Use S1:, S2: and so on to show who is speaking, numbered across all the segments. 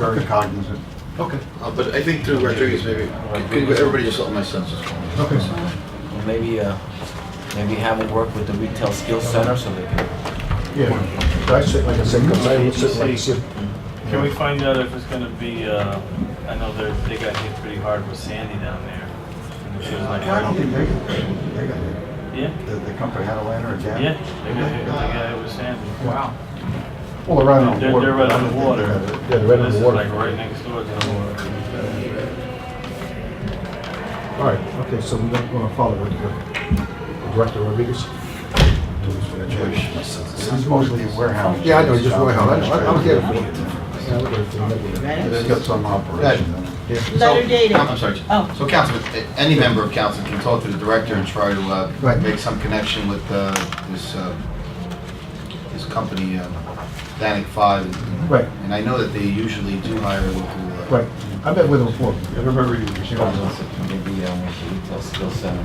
S1: very cognizant. Okay,
S2: Uh, But I think through Rodriguez, maybe, could you- everybody just let my census go?
S1: okay.
S3: Well, maybe, uh, maybe have it work with the retail skills center so they can.
S1: Yeah. So I sit like a sick, I would sit like a sick.
S4: Can we find out if it's gonna be, uh, I know they're, they got hit pretty hard with Sandy down there. And it feels like-
S1: I don't think they, they got it.
S4: Yeah,
S1: The, the company had a lantern or
S4: yeah,
S1: jam.
S4: they got hit, they got hit with Sandy.
S1: Wow. Well, right on the
S4: They're-
S1: water.
S4: they're right on the water.
S1: Yeah,
S4: So This is like right next door to the water.
S5: All right, okay, so we're going to follow with the Director Rodriguez.
S1: This is mostly warehouse.
S5: Yeah, I know, just warehouse. I know, I- I'm here for it.
S1: it.
S5: Yeah, we're gonna do that.
S1: They've got some operation.
S5: Yeah,
S2: So-
S6: Letter dated.
S2: I'm sorry.
S6: Oh.
S2: So council, any member of council can talk to the director and try to uh,
S5: Right.
S2: make some connection with uh, this, uh, this company, uh, Danic Five. and-
S5: Right.
S2: And I know that they usually do hire local. uh,
S5: Right, I met with him before.
S1: I remember you, uh, you
S3: Maybe, um, with the retail skills center.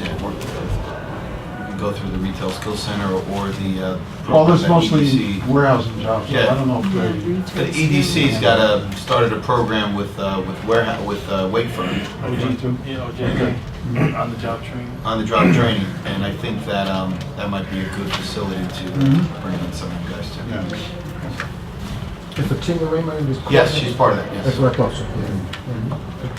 S2: yeah, work with them. You can Go through the retail skills center or the. uh,
S1: Well, this
S2: program that
S1: mostly
S2: EDC
S1: warehousing jobs, so I
S2: Yeah.
S1: don't know if they.
S2: The EDC's E got a, started a program with, uh, with warehouse, with uh, Wakefern.
S4: OJ, yeah, OJ, on the job training.
S2: on the
S1: Mm.
S2: job training, and I think that, um, that might be a good facility to
S1: Mhm.
S2: bring in some of you guys
S1: Yeah.
S2: to.
S5: Is Fatima Raymond in this?
S2: Yes, she's part of that, yes.
S5: That's what I thought, so. yeah.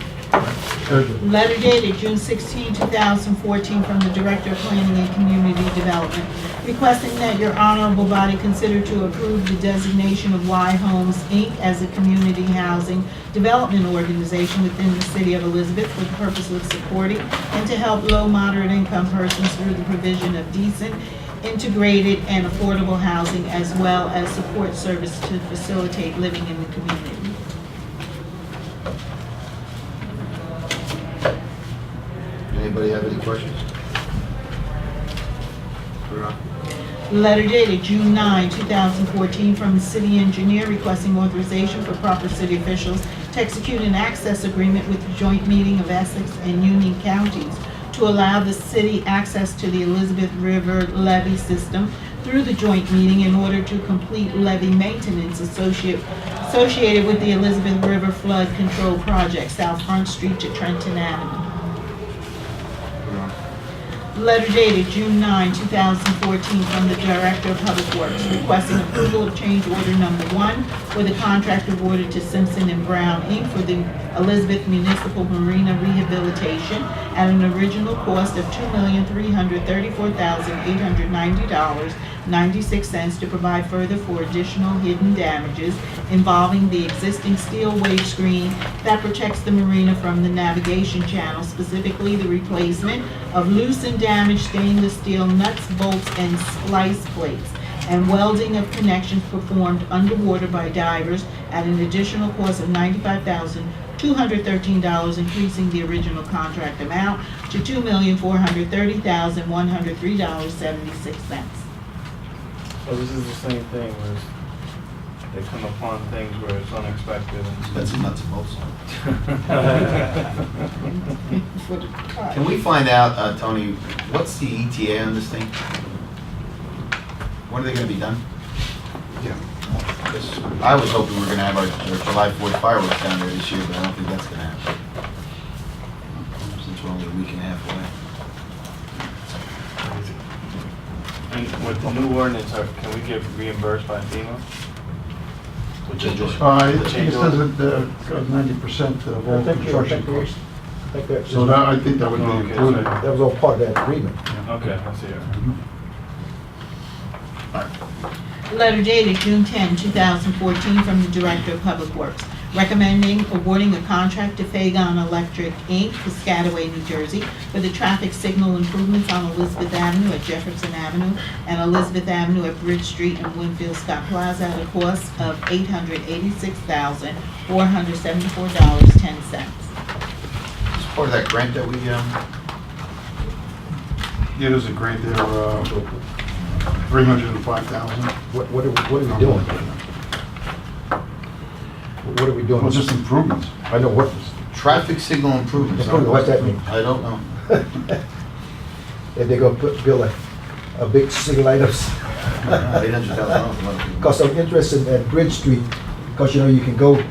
S5: Very good.
S6: Letter dated June 16, 2014, from the Director of Planning and Community Development, requesting that your honorable body consider to approve the designation of Y Homes, Inc. as a community housing development organization within the city of Elizabeth for the purpose of supporting and to help low, moderate income persons through the provision of decent, integrated, and affordable housing, as well as support service to facilitate living in the community.
S2: Anybody have any questions? Rod?
S6: Letter dated June 9, 2014, from the city engineer requesting authorization for proper city officials to execute an access agreement with the joint meeting of Essex and Union counties to allow the city access to the Elizabeth River levee system through the joint meeting in order to complete levee maintenance associate- associated with the Elizabeth River Flood Control Project, South Front Street to Trenton Avenue. Letter dated June 9, 2014, from the Director of Public Works requesting approval of change order number one for the contract awarded to Simpson and Brown, Inc. for the Elizabeth Municipal Marina rehabilitation at an original cost of $2,334,890.96 to provide further for additional hidden damages involving the existing steel wave screen that protects the marina from the navigation channel, specifically the replacement of loose and damaged stainless steel nuts, bolts, and splice plates, and welding of connections performed underwater by divers at an additional cost of ninety-five thousand two hundred thirteen dollars, increasing the original contract amount to two million four hundred thirty thousand one hundred three dollars seventy-six cents.
S4: So this is the same thing, where it's- they come upon things where it's unexpected
S2: That's a nuts and bolts.
S4: and.
S6: For the cut.
S2: Can we find out, uh, Tony, what's the ETA on this thing? When are they gonna be done?
S1: Yeah.
S2: 'Cause I was hoping we were gonna have our our July Fourth fireworks down there this year, but I don't think that's gonna happen. Since we're only a week and a half away.
S4: And with the new ordinance, are- can we get reimbursed by FEMA? Which is just-
S1: Uh,
S4: the
S1: it
S4: change
S1: it
S4: order?
S1: doesn't, uh, ninety percent of all
S5: I think you're- I
S1: construction
S5: think you're-
S1: costs.
S5: I think that's-
S1: So that, I think that would
S4: Okay,
S1: be included.
S4: so-
S5: That was all part of that agreement.
S4: Okay, I see it.
S6: Letter dated June 10, 2014, from the Director of Public Works, recommending awarding a contract to Fagon Electric, Inc., Piscataway, New Jersey, for the traffic signal improvements on Elizabeth Avenue at Jefferson Avenue and Elizabeth Avenue at Bridge Street and Winfield Scott Plaza at a cost of $886,474.10.
S2: It's part of that grant that we, um,
S1: It is a grant there, uh, three hundred and five thousand.
S5: What, what are, we- what are we doing? What are we doing?
S1: Well, just improvements.
S5: I know what,
S2: Traffic signal improvements.
S5: what's that mean?
S2: I don't know.
S5: If they're gonna put, build a, a big single light up.
S2: Eight hundred thousand dollars.
S5: Cause I'm interested at Bridge Street, cause you know, you can go